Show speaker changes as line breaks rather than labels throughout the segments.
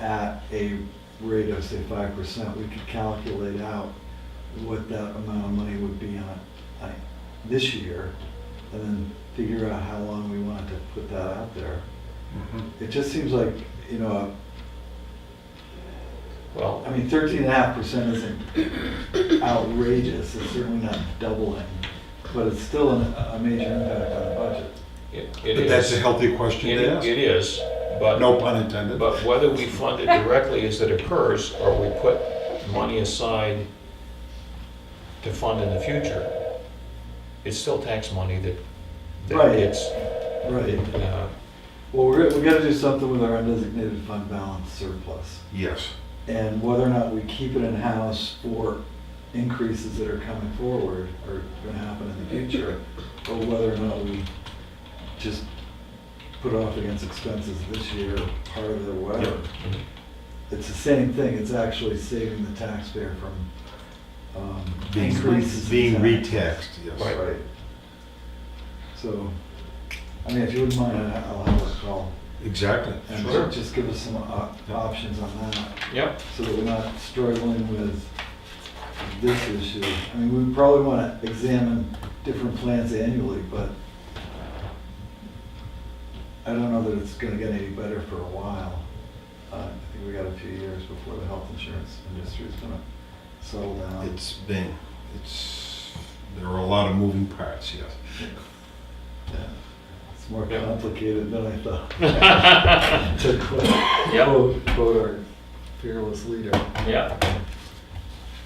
at a rate of say five percent, we could calculate out what that amount of money would be on, like, this year, and then figure out how long we wanted to put that out there.
Mhm.
It just seems like, you know,
Well,
I mean, thirteen and a half percent isn't outrageous, it's certainly not doubling, but it's still an- a major impact on the budget.
it it
But
is.
that's a healthy question
It
to ask.
it is, but.
No pun intended.
But whether we fund it directly as it occurs, or we put money aside to fund in the future, it's still tax money that, that
Right.
gets,
Right,
uh,
well, we're, we gotta do something with our undesignated fund balance surplus.
Yes.
and whether or not we keep it in-house for increases that are coming forward or gonna happen in the future, or whether or not we just put off against expenses this year, part of it, whatever.
Yep.
It's the same thing, it's actually saving the taxpayer from, um,
Being,
increases. in
being
tax.
retaxed, yes.
Right.
Right. So, I mean, if you wouldn't mind, I- I'll have a call.
Exactly.
and
Sure.
Just give us some op-
Yep.
options on that
yep,
so that we're not struggling with this issue. I mean, we probably want to examine different plans annually, but I don't know that it's going to get any better for a while. Uh, I think we got a few years before the health insurance industry is going to settle down.
It's been, it's, there are a lot of moving parts, yes.
Yeah. It's more
Yeah.
complicated than I thought. To quote-
Yep.
quote, quote our fearless leader.
yeah.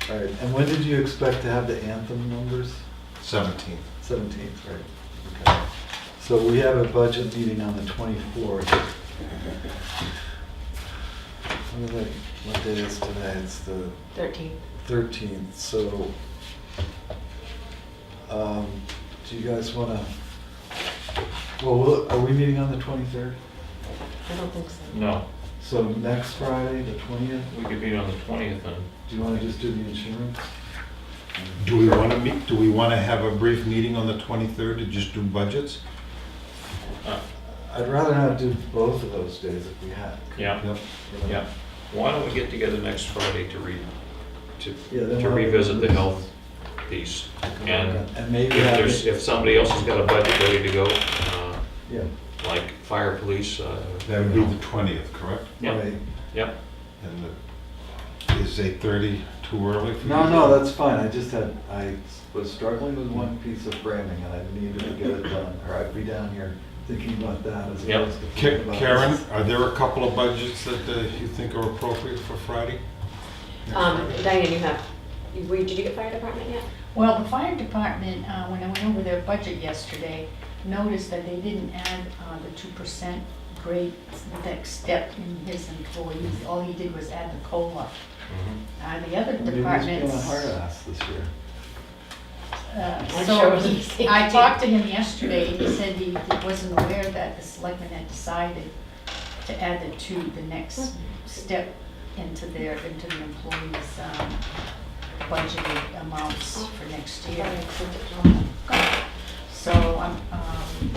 All right, and when did you expect to have the anthem numbers?
Seventeenth.
Seventeenth, right. Okay. So we have a budget meeting on the twenty-fourth. What is it- what day is today? It's the
13.
thirteenth, so, um, do you guys wanna, well, we'll- are we meeting on the twenty-third?
I don't think so.
No,
So next Friday, the twentieth,
we could meet on the twentieth and,
do you wanna just do the insurance?
Do we want to meet, do we want to have a brief meeting on the twenty-third to just do budgets?
uh,
I'd rather not do both of those days if we had.
yeah,
Yep.
you know?
yeah. Why don't we get together next Friday to read, to,
Yeah, then
to
we'll-
revisit the health piece? And
And maybe
if
have
there's,
it-
if somebody else has got a budget ready to go, uh,
Yeah,
like fire, police, uh.
That would be the twentieth, correct?
Yeah.
right.
Yep.
And the- is eight thirty too early for you?
No, no, that's fine, I just had, I was struggling with one piece of framing, and I needed to get it done, or I'd be down here thinking about that as
Yep.
opposed to
Ka-
thinking about.
Karen,
this.
are there a couple of budgets that uh, you think are appropriate for Friday?
Um, Diane, you have, you- were- did you get fire department yet?
Well, the fire department, uh, when I went over their budget yesterday, noticed that they didn't add uh, the two percent grade next step in his employees. All he did was add the COLA. Uh, The other
Maybe it's been
departments.
a hard ass this year.
uh,
I'm sure
So
what he's
he, I talked to him yesterday and he said he he wasn't aware that the selectmen had decided to add the two, the next step into their, into the employees' um, budgeted amounts for next year. So I'm, um,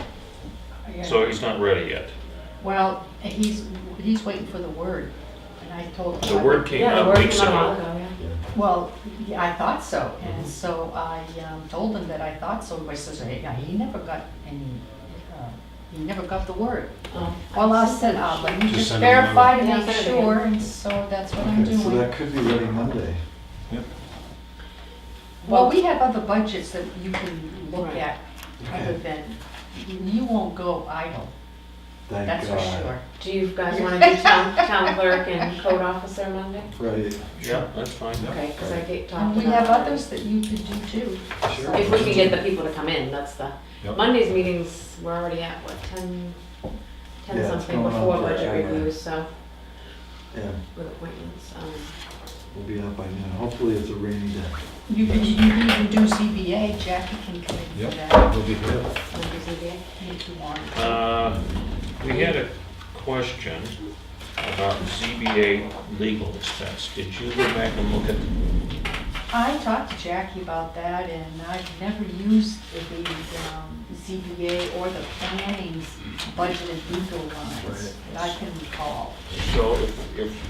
yeah.
So he's not ready yet.
Well, he's, he's waiting for the word, and I told him.
The word came
Yeah, the
out
word
weeks
came out a while
ago.
ago, yeah.
Well, yeah, I thought so, and so I um, told him that I thought so, my sister, yeah, he never got any, uh, he never got the word.
Oh.
Well, I said, uh, let me
Just
just
send him a
verify to
letter.
make
Yeah, send it
sure,
again.
and so that's what I'm
Okay, so that could
doing.
be ready Monday.
Well, we have other budgets that you can look
Right.
at, other
Okay.
than, you won't go idle,
Thank
that's for
God.
sure.
Do you guys want to do town town clerk and code officer Monday?
Right,
Yeah, that's fine.
Okay, because I get talked
And
about.
we have
that.
others that you could do too.
sure.
If we can get the people to come in, that's the,
Yep.
Monday's meetings, we're already at, what, 10, 10
Yeah, it's
something
going on
before
for
budget
an hour.
reviews, so,
Yeah,
with appointments. um,
we'll be out by noon, hopefully it's a rainy day.
You can, you can even do CBA, Jackie can come in for that
Yep, we'll be here.
Monday's meeting.
if you want.
Uh, We had a question about ZBA legal expense. Did you go back and look at,
I talked to Jackie about that, and I've never used the um, ZBA or the planning's budgeted legal lines that I can recall.
so if- if